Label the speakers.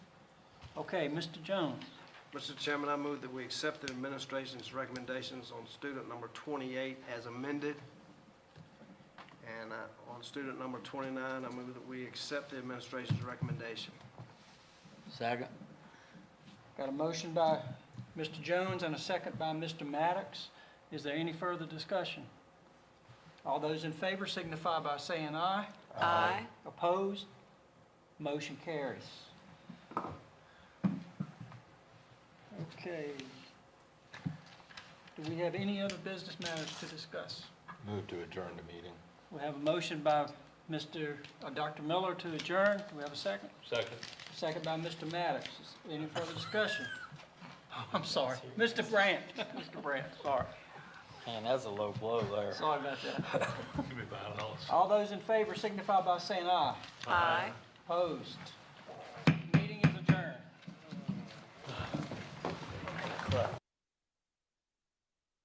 Speaker 1: Okay, Mr. Jones,
Speaker 2: Mr. Chairman, I move that we accept the administration's recommendations on student number 28 as amended. And uh, on student number 29, I move that we accept the administration's recommendation.
Speaker 3: Second.
Speaker 1: got a motion by Mr. Jones and a second by Mr. Maddox. Is there any further discussion? All those in favor signify by saying aye.
Speaker 4: Aye.
Speaker 1: Opposed? Motion carries. Okay. Do we have any other business matters to discuss?
Speaker 3: Move to adjourn the meeting.
Speaker 1: We have a motion by Mr., uh, Dr. Miller to adjourn. Do we have a second?
Speaker 3: Second.
Speaker 1: Second by Mr. Maddox. Is Any further discussion? I'm sorry, Mr. Brandt, Mr. Brandt, sorry,
Speaker 3: Man, that's a low blow there.
Speaker 1: sorry about that.
Speaker 5: Give me five dollars.
Speaker 1: All those in favor signify by saying aye.
Speaker 4: Aye.
Speaker 1: Opposed?